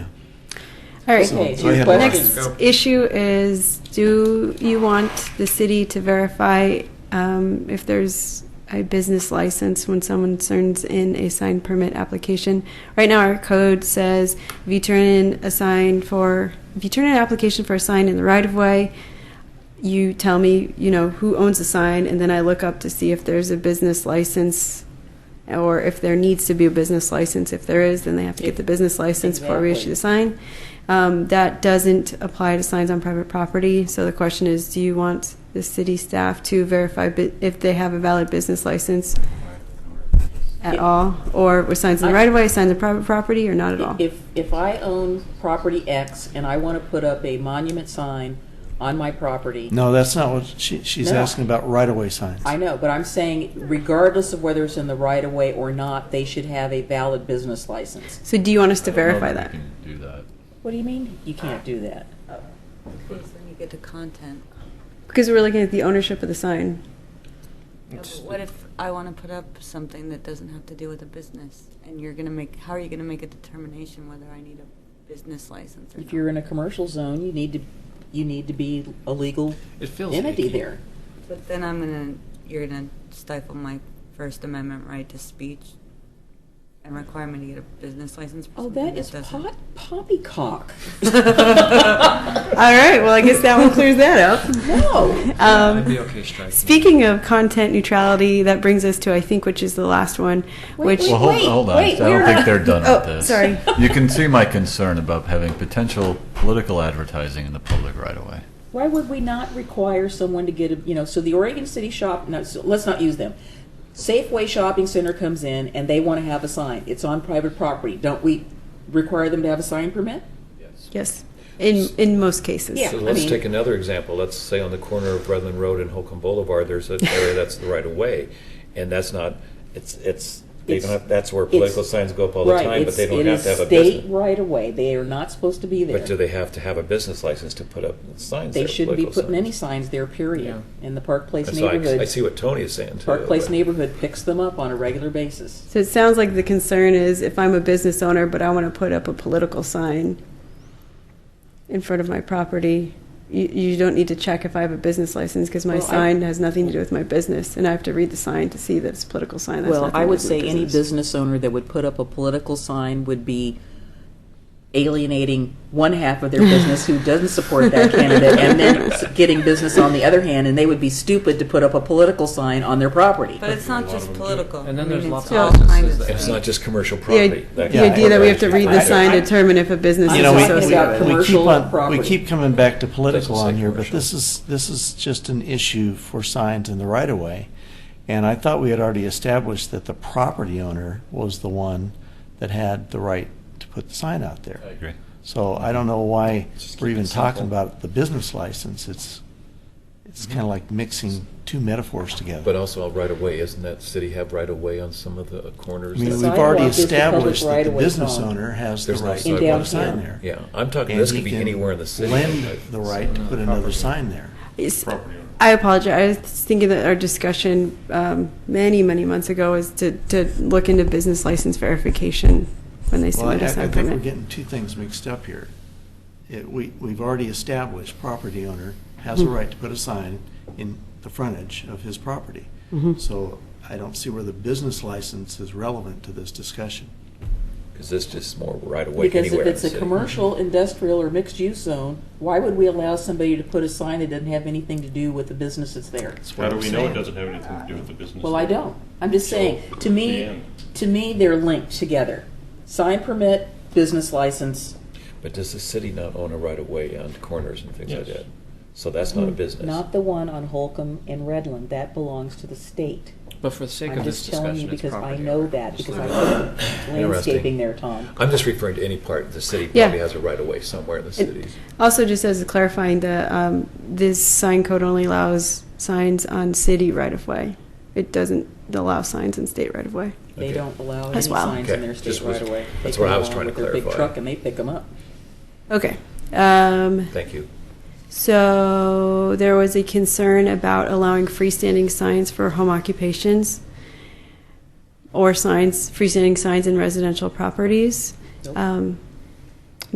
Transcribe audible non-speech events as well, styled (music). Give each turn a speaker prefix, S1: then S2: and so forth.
S1: All right.
S2: So
S3: Okay,
S2: I had
S3: question.
S2: lots.
S1: Next issue is, do you want the city to verify um, if there's a business license when someone turns in a sign permit application? Right now, our code says if you turn in a sign for, if you turn in an application for a sign in the right of way, you tell me, you know, who owns the sign, and then I look up to see if there's a business license or if there needs to be a business license. If there is, then they have to get the business license before we issue the sign. Um, that doesn't apply to signs on private property. So the question is, do you want the city staff to verify bu- if they have a valid business license at all? Or with signs in the right of way, signs on private property, or not at all?
S3: If, if I own property X and I want to put up a monument sign on my property,
S2: No, that's not what she, she's
S3: No.
S2: asking about right-of-way signs.
S3: I know, but I'm saying regardless of whether it's in the right of way or not, they should have a valid business license.
S1: So do you want us to
S4: I don't know
S1: verify
S4: if
S1: that?
S4: We can do that.
S3: What do you mean? You can't do that.
S5: When you get to content,
S1: Because we're looking at the ownership of the sign.
S5: Yeah, but what if I want to put up something that doesn't have to do with a business, and you're gonna make, how are you gonna make a determination whether I need a business license or
S3: If
S5: not?
S3: you're in a commercial zone, you need to, you need to be a legal
S4: It feels
S3: entity
S4: icky.
S3: there.
S5: But then I'm gonna, you're gonna stifle my First Amendment right to speech and require me to get a business license for
S3: Oh,
S5: something
S3: that is
S5: that
S3: pot, (laughs)
S5: doesn't.
S3: poppycock.
S1: All right, well, I guess that one clears that up.
S3: (laughs) No.
S1: (laughs) Um,
S6: I'd be okay striking.
S1: Speaking of content neutrality, that brings us to I think, which is the last one, which
S3: Wait,
S4: Well, hold,
S3: wait,
S4: hold on.
S3: wait,
S4: I
S3: we're
S4: don't think
S3: not-
S4: they're done
S1: Oh,
S4: with this.
S1: sorry.
S4: You can see my concern about having potential political advertising in the public right away.
S3: Why would we not require someone to get a, you know, so the Oregon City shop, no, so let's not use them. Safeway Shopping Center comes in and they want to have a sign. It's on private property. Don't we require them to have a sign permit?
S1: yes, in in most cases.
S3: Yeah.
S6: So
S3: I
S6: let's
S3: mean-
S6: take another example. Let's say on the corner of Redland Road and Holcomb Boulevard, there's an area that's the right of way, and that's not, it's, it's, they
S3: It's-
S6: don't have, that's where political
S3: it's-
S6: signs go up all the time, but
S3: it's-
S6: they don't
S3: it
S6: have
S3: is
S6: to have a
S3: state
S6: business.
S3: right away. They are not supposed to be there.
S6: But do they have to have a business license to put up signs
S3: They
S6: there?
S3: shouldn't be
S6: political
S3: putting any
S6: signs?
S3: signs there, period. In the Park Place
S6: And so I, I see
S3: neighborhood,
S6: what Tony is saying too.
S3: Park Place
S6: but-
S3: neighborhood picks them up on a regular basis.
S1: So it sounds like the concern is if I'm a business owner, but I want to put up a political sign in front of my property, you, you don't need to check if I have a business license because my
S3: Well, I-
S1: sign has nothing to do with my business, and I have to read the sign to see that it's a political sign. That's
S3: Well,
S1: nothing
S3: I
S1: to
S3: would
S1: do with
S3: say any business owner that would put up a political sign would be alienating one half of their business who doesn't support that candidate and then s- getting business on the other hand, and they would be stupid to put up a political sign on their property.
S5: But it's not just political.
S6: And then
S5: I mean,
S6: there's
S5: it's
S6: lots of
S5: all
S6: businesses
S5: kinds of
S6: And it's
S5: stuff.
S6: not just commercial
S1: The, i-
S6: property. that
S1: the
S6: can-
S1: idea that we have to read the
S6: I-
S1: sign to determine if a business
S2: You
S1: is
S2: know, we-
S3: talking about
S1: associated.
S2: we, we keep
S3: commercial
S2: on, we
S3: property.
S2: keep coming back to political
S6: Doesn't say
S2: on here, but
S6: commercial.
S2: this is, this is just an issue for signs in the right of way. And I thought we had already established that the property owner was the one that had the right to put the sign out there.
S4: I agree.
S2: So I don't know why
S6: Just keep
S2: we're
S6: it
S2: even talking
S6: simple.
S2: about the business license. It's, it's kind of like mixing two metaphors together.
S6: But also right of way, isn't that city have right of way on some of the corners?
S2: I mean,
S3: The
S2: we've
S3: sidewalk
S2: already
S3: is the public
S2: established that the
S3: right-of-way
S2: business
S3: zone.
S2: owner has the
S6: There's no
S2: right to
S6: sidewalk.
S2: put a
S3: Downtown.
S2: sign there.
S6: Yeah, I'm talking,
S2: And
S6: this
S2: he
S6: could be
S2: can
S6: anywhere in the city.
S2: Lend
S6: I-
S2: the right to put another sign there.
S1: It's-
S4: Property owner.
S1: I apologize. I was thinking that our discussion um, many, many months ago is to, to look into business license verification when they
S2: Well, I,
S1: submit
S2: I
S1: a sign
S2: think we're
S1: permit.
S2: getting two things mixed up here. It, we, we've already established property owner has
S1: Mm-hmm.
S2: a right to put a sign in the frontage of his property.
S1: Mm-hmm.
S2: So I don't see where the business license is relevant to this discussion.
S6: Because this just more right away
S3: Because if
S6: anywhere. in
S3: it's
S6: the
S3: a
S6: city.
S3: commercial, industrial, or mixed-use zone, why would we allow somebody to put a sign that doesn't have anything to do with the business that's there?
S2: That's what
S7: How do
S2: I'm
S7: we know it
S2: saying.
S7: doesn't have anything to do with the business?
S3: Well, I don't. I'm just saying, to me,
S7: Dan.
S3: to me, they're linked together. Sign permit, business license,
S6: But does the city not own a right of way on corners and things like
S7: Yes.
S6: that? So that's not a business.
S3: Mm, Not the one on Holcomb and Redland, that belongs to the state.
S8: But for the sake
S3: I'm
S8: of this
S3: just telling you
S8: discussion, it's
S3: because I
S8: property
S3: know
S8: owner.
S3: that,
S8: Just
S3: because I
S8: leave it.
S3: put landscaping
S6: Interesting.
S3: there, Tom.
S6: I'm just referring to any part, the city
S1: Yeah.
S6: probably has a right of way somewhere in the city.
S1: Also, just as a clarifying, the um, this sign code only allows signs on city right of way. It doesn't allow signs in state right of way.
S3: They
S6: Okay.
S3: don't allow any
S1: As well.
S3: signs in
S6: Okay,
S3: their state
S6: just was-
S3: right away.
S6: that's what I was trying to
S3: They come along with their big
S6: clarify.
S3: truck and they pick them up.
S1: Okay. Um,
S6: Thank you.
S1: So there was a concern about allowing freestanding signs for home occupations or signs, freestanding signs in residential properties.
S3: Nope.
S1: Um,